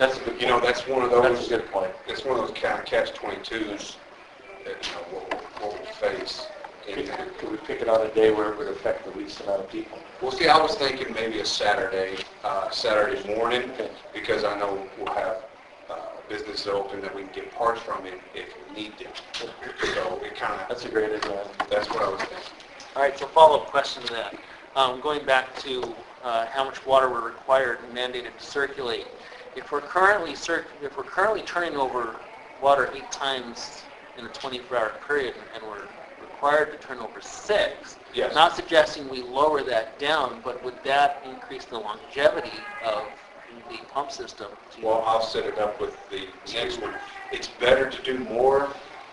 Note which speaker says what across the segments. Speaker 1: That's,
Speaker 2: you know, that's one of those.
Speaker 1: That's a good point.
Speaker 2: It's one of those kind of catch twenty-twos that, you know, we'll, we'll face.
Speaker 1: Could
Speaker 2: And-
Speaker 1: could we pick it on a day where it would affect the least amount of people?
Speaker 2: Well, see, I was thinking maybe a Saturday, uh, Saturday morning, because I know we'll have, uh, businesses open that we can get parts from if, if we need them. So it kind of,
Speaker 1: That's a great idea.
Speaker 2: that's what I was thinking.
Speaker 3: All right, so follow-up question to that. Um, Going back to uh, how much water we're required and mandated to circulate. If we're currently, cir- if we're currently turning over water eight times in a 24-hour period and we're required to turn over six,
Speaker 2: Yes.
Speaker 3: not suggesting we lower that down, but would that increase the longevity of the pump system? to-
Speaker 2: Well, I'll set it up with the next one. It's better to do more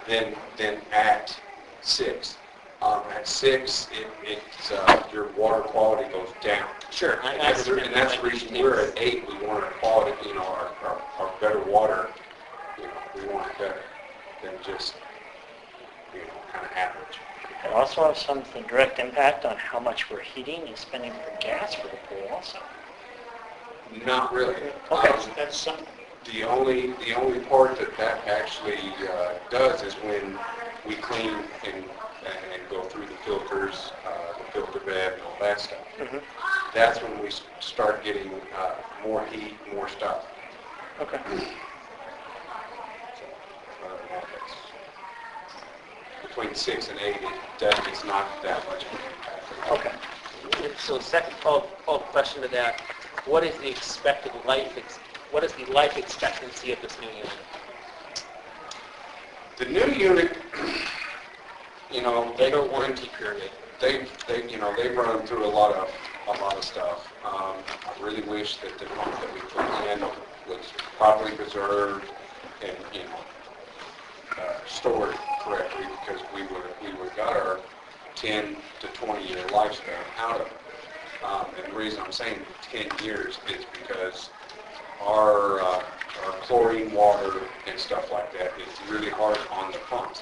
Speaker 2: than, than at six. Um, at six, it, it's, uh, your water quality goes down.
Speaker 3: Sure. I- I
Speaker 2: And that's, the-
Speaker 3: understand
Speaker 2: and that's
Speaker 3: that.
Speaker 2: the reason we're at eight, we want our quality, you know, our, our, our better water, you know, we want it better than just, you know, kind of average.
Speaker 4: It also has some the direct impact on how much we're heating and spending for gas for the pool also.
Speaker 2: Not really.
Speaker 4: Okay,
Speaker 2: Um,
Speaker 4: so that's something.
Speaker 2: The only, the only part that that actually uh, does is when we clean and, and go through the filters, uh, the filter bed and all that stuff.
Speaker 4: Mhm.
Speaker 2: That's when we s- start getting uh, more heat, more stuff.
Speaker 4: Okay.
Speaker 2: So, I don't know if it's- Between six and eight, it does, it's not that much of an impact.
Speaker 4: Okay.
Speaker 3: So second follow-up follow-up question to that, what is the expected life, ex- what is the life expectancy of this new unit?
Speaker 2: The new unit, you know, they
Speaker 3: Labor
Speaker 2: don't want to
Speaker 3: warranty period.
Speaker 2: they, they, you know, they've run through a lot of, a lot of stuff. Um, I really wish that the pump that we put in was properly preserved and, you know, uh, stored correctly because we would, we would got our 10 to 20 year lifespan out of it. Um, and the reason I'm saying 10 years is because our, uh, our chlorine water and stuff like that is really hard on the pumps.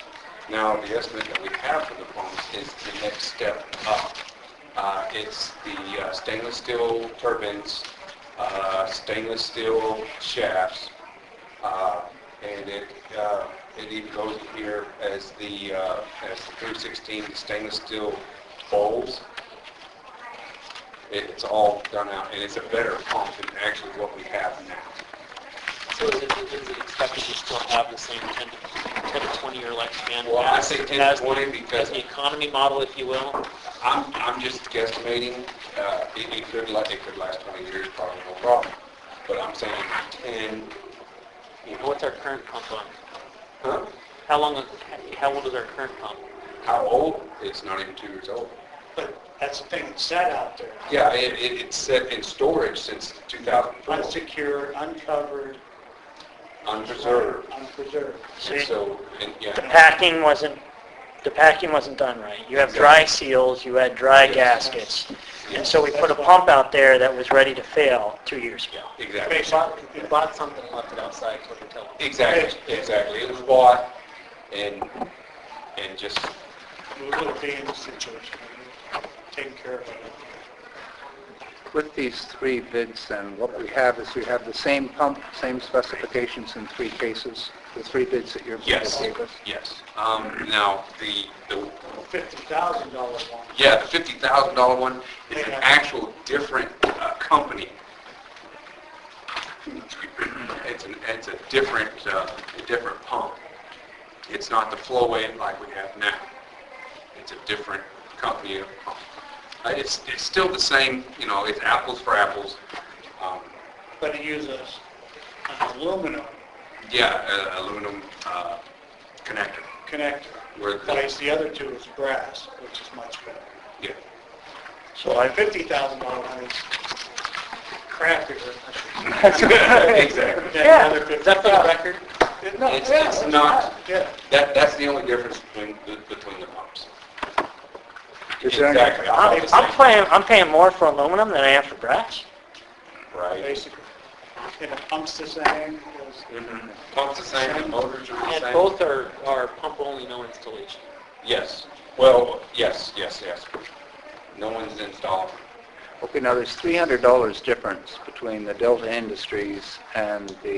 Speaker 2: Now, the estimate that we have for the pumps is the next step up. Uh, it's the uh, stainless steel turbines, uh, stainless steel shafts, uh, and it, uh, it even goes in here as the, uh, as the 316 stainless steel bowls. It- It's all done out, and it's a better pump than actually what we have now.
Speaker 3: So is it, is it expected to still have the same 10 to 10 to 20-year lifespan?
Speaker 2: Well, I
Speaker 3: as-
Speaker 2: say 10 to
Speaker 3: as the-
Speaker 2: 20 because-
Speaker 3: As the economy model, if you will?
Speaker 2: I'm, I'm just guesstimating, uh, it, it could last, it could last 20 years, probably no problem. But I'm saying 10, you
Speaker 3: And
Speaker 2: know,
Speaker 3: what's our current pump on?
Speaker 2: huh?
Speaker 3: How long, how old is our current pump?
Speaker 2: How old? It's not even two years old.
Speaker 4: But that's the thing, it's sat out there,
Speaker 2: Yeah, it, it, it's set in storage since 2004,
Speaker 4: unsecure, uncovered,
Speaker 2: unpreserved.
Speaker 4: unpreserved.
Speaker 2: And so, and
Speaker 4: The
Speaker 2: yeah,
Speaker 4: packing wasn't, the packing wasn't done right. You have dry seals, you had dry
Speaker 2: Yes.
Speaker 4: gaskets. And
Speaker 2: Yes.
Speaker 4: so we put a pump out there that was ready to fail two years ago.
Speaker 2: exactly.
Speaker 3: We bought something and left it outside, so we tell them.
Speaker 2: Exactly, exactly. It was bought and, and just,
Speaker 4: We'll be in the situation, taking care of it.
Speaker 5: With these three bids, then, what we have is we have the same pump, same specifications in three cases, the three bids that your bidder
Speaker 2: yes,
Speaker 5: gave us.
Speaker 2: yes. Um, now, the, the
Speaker 4: Fifty thousand dollar one.
Speaker 2: Yeah, the fifty thousand dollar one is an actual different uh, company. It's an, it's a different, uh, a different pump. It's not the Flowway like we have now. It's a different company of pump. Uh, It's, it's still the same, you know, it's apples for apples. Um,
Speaker 4: But it uses an aluminum
Speaker 2: Yeah, a- aluminum uh, connector.
Speaker 4: connector,
Speaker 2: Where the-
Speaker 4: whereas the other two is brass, which is much better.
Speaker 2: Yeah,
Speaker 4: So I... Fifty thousand dollar one is crappier.
Speaker 2: exactly.
Speaker 4: than the other
Speaker 3: Is that for the
Speaker 4: $50,000.
Speaker 3: record?
Speaker 4: No,
Speaker 2: It's-
Speaker 4: yeah,
Speaker 2: it's not-
Speaker 4: Yeah.
Speaker 2: That, that's the only difference between, the- between the pumps.
Speaker 5: Is there any-
Speaker 2: Exactly. I thought the same.
Speaker 4: paying, I'm paying more for aluminum than I am for brass.
Speaker 2: Right.
Speaker 4: Basically. And the pump's the same, it's-
Speaker 2: Mhm. Pumps the same, the motors are the
Speaker 3: And
Speaker 2: same.
Speaker 3: both are, are pump-only, no installation.
Speaker 2: Yes, well, yes, yes, yes. No one's installed.
Speaker 5: Okay, now, there's $300 difference between the Delta Industries and the